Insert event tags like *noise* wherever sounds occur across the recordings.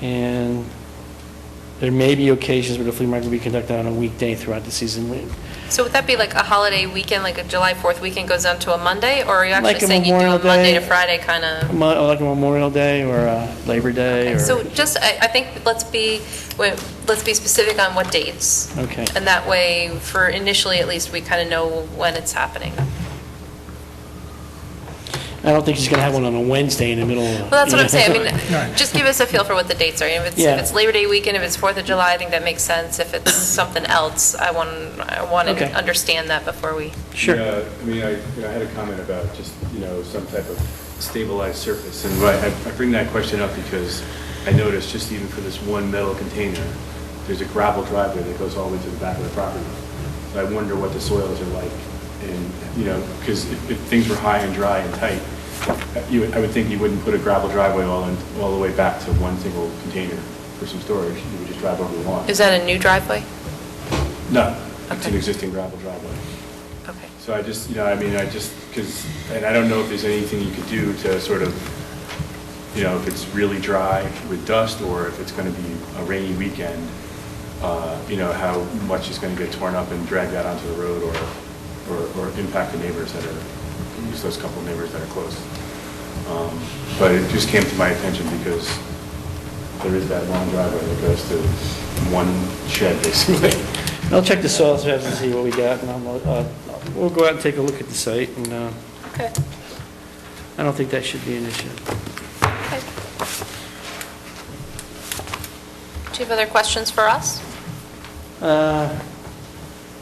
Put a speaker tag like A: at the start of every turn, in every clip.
A: And there may be occasions where the flea market will be conducted on a weekday throughout the season.
B: So would that be like a holiday weekend, like a July 4th weekend goes down to a Monday? Or are you
A: Like
B: actually
A: a
B: saying you do
A: Memorial
B: a Monday
A: Day.
B: to Friday kind of?
A: Mo- Like a Memorial Day or a Labor Day or...
B: So just, I, I think, let's be, wait, let's be specific on what dates.
A: Okay.
B: And that way, for initially at least, we kind of know when it's happening.
A: I don't think she's going to have one on a Wednesday in the middle of...
B: Well, that's what I'm saying, I mean,
C: Right.
B: just give us a feel for what the dates are. If it's,
A: Yeah.
B: if it's Labor Day weekend, if it's Fourth of July, I think that makes sense.
A: *coughs*
B: If it's something else, I want, I want
A: Okay.
B: to understand that before we.
A: Sure.
D: Yeah, I mean, I, you know, I had a comment about just, you know, some type of stabilized surface. And why- I I bring that question up because I noticed just even for this one metal container, there's a gravel driveway that goes all the way to the back of the property. So I wonder what the soils are like and, you know, because if, if things were high and dry and tight, you, would- I would think you wouldn't put a gravel driveway all in, all the way back to one single container for some storage. You would just drive over the lawn.
B: Is that a new driveway?
D: No, it's an
B: Okay.
D: existing gravel driveway.
B: Okay.
D: So I just, you know, I mean, I just, because, and I don't know if there's anything you could do to sort of, you know, if it's really dry with dust or if it's going to be a rainy weekend, uh, you know, how much is going to get torn up and dragged out onto the road or, or, or impact the neighbors that are, just those couple neighbors that are close. Um, But it just came to my attention because there is that long driveway that goes to one shed basically.
A: I'll check the soils maps and see what we got, and I'll, uh, we'll go out and take a look at the site, and uh,
B: Okay.
A: I don't think that should be an issue.
B: Okay. Do you have other questions for us?
A: Uh,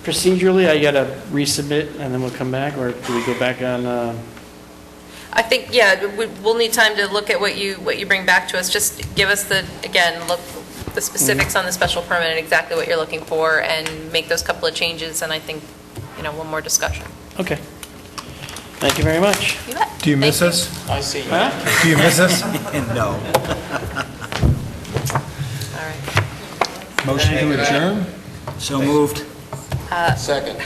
A: Procedurally, I got to resubmit, and then we'll come back, or do we go back on, uh,
B: I think, yeah, we- we'll need time to look at what you, what you bring back to us. Just give us the, again, look, the specifics on the special permit and exactly what you're looking for, and make those couple of changes, and I think, you know, one more discussion.
A: okay. Thank you very much.
B: You bet.
C: Do you miss
B: Thank
C: us?
E: I see.
A: Huh?
C: Do you miss us?
F: No.
B: All right.
C: Motion to adjourn?
F: *laughs* So moved.
E: Second.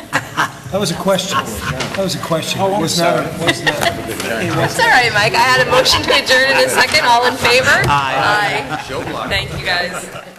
C: That was a question. That was a question. Oh, was not a- was not a-
B: That's all right, Mike. I had a motion to adjourn in a second. All in favor? Aye. Aye. Thank you, guys.